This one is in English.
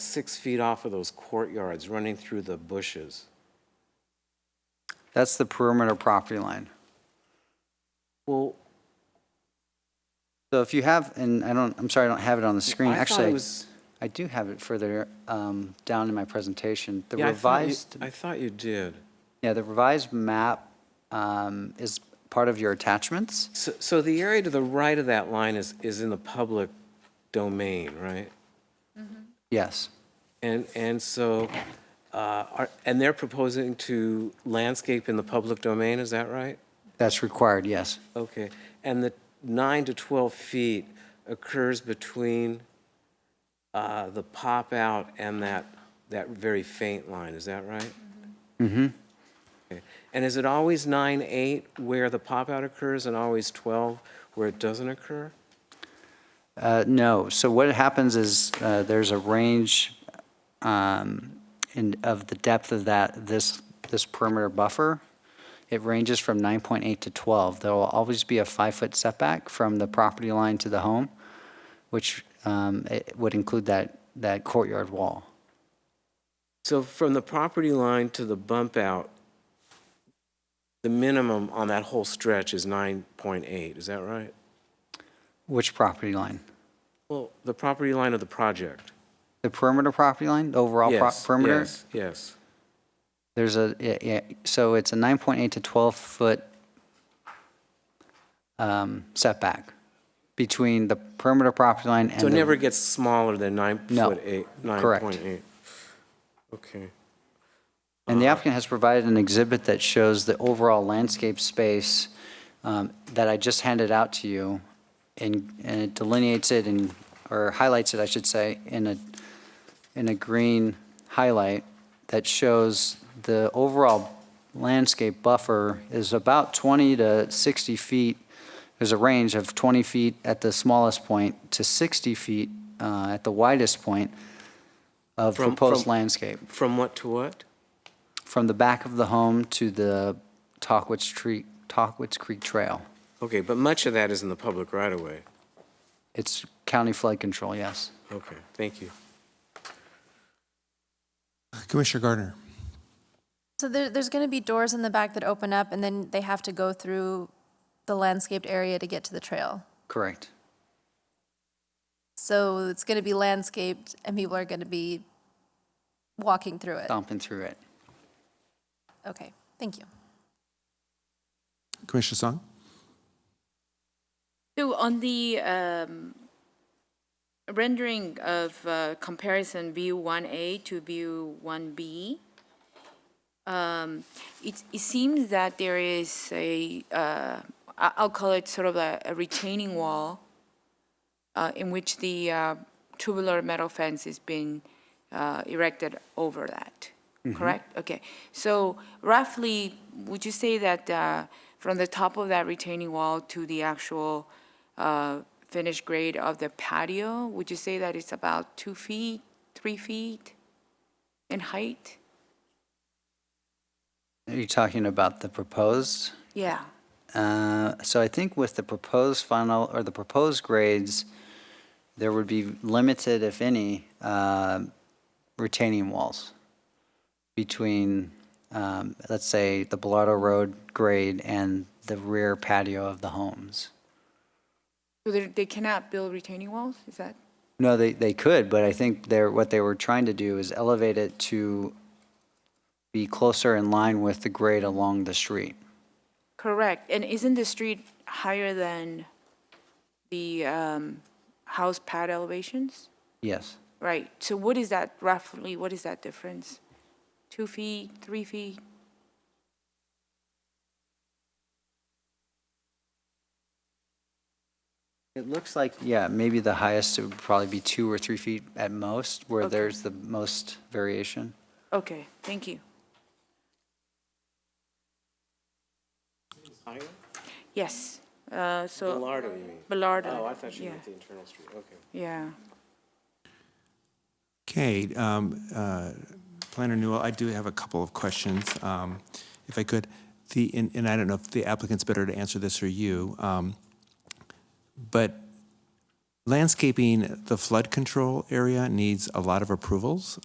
six feet off of those courtyards, running through the bushes. That's the perimeter property line. Well, So if you have, and I don't, I'm sorry, I don't have it on the screen. I thought it Actually, was- I do have it further um, down in my presentation. The yeah, I thought you- revised, I thought you did. yeah, the revised map um, is part of your attachments. So, so the area to the right of that line is, is in the public domain, right? Yes. And, and so, uh, are, and they're proposing to landscape in the public domain, is that right? That's required, yes. Okay, and the nine to 12 feet occurs between uh, the pop-out and that, that very faint line, is that right? Mm-hmm. And is it always nine, eight where the pop-out occurs and always 12 where it doesn't occur? Uh, No, so what happens is uh, there's a range um, in, of the depth of that, this, this perimeter buffer. It ranges from 9.8 to 12. There will always be a five-foot setback from the property line to the home, which um, it would include that, that courtyard wall. So from the property line to the bump out, the minimum on that whole stretch is 9.8, is that right? Which property line? Well, the property line of the project. The perimeter property line, the overall pro- Yes, perimeter? Yes, yes. There's a, yeah, yeah, so it's a 9.8 to 12-foot um, setback between the perimeter property line and So the... it never gets smaller than nine No, foot eight, nine correct. point eight? Okay. And the Uh-huh. applicant has provided an exhibit that shows the overall landscape space um, that I just handed out to you, and and it delineates it and, or highlights it, I should say, in a, in a green highlight that shows the overall landscape buffer is about 20 to 60 feet. There's a range of 20 feet at the smallest point to 60 feet uh, at the widest point of From- proposed from- landscape From what to what? from the back of the home to the Talkwitz Creek, Talkwitz Creek Trail. Okay, but much of that is in the public right of way. It's county flood control, yes. Okay, thank you. Commissioner Gardner. So there, there's going to be doors in the back that open up, and then they have to go through the landscaped area to get to the trail. Correct. So it's going to be landscaped, and people are going to be walking through it. Stomping through it. Okay, thank you. Commissioner Song. So on the um, rendering of uh, comparison view 1A to view 1B, um, it, it seems that there is a, uh, I- I'll call it sort of a, a retaining wall uh, in which the uh, tubular metal fence is being uh, erected over that, correct? Okay, so roughly, would you say that uh, from the top of that retaining wall to the actual uh, finished grade of the patio, would you say that it's about two feet, three feet in height? Are you talking about the proposed? Yeah, Uh, So I think with the proposed final, or the proposed grades, there would be limited, if any, uh, retaining walls between, um, let's say, the Bellardo Road grade and the rear patio of the homes. so they they cannot build retaining walls, is that? No, they, they could, but I think they're, what they were trying to do is elevate it to be closer in line with the grade along the street. Correct, and isn't the street higher than the um, house pad elevations? Yes. Right, so what is that roughly, what is that difference? Two feet, three feet? It looks like, yeah, maybe the highest it would probably be two or three feet at most, where Okay. there's the most variation. Okay, thank you. Higher? Yes, uh, so, Lardo, you mean? Ballard. Oh, I thought you yeah, meant the internal street, okay. Yeah, Okay, um, uh, Planner Newell, I do have a couple of questions, um, if I could. The, and, and I don't know if the applicant's better to answer this or you, um, but landscaping, the flood control area needs a lot of approvals.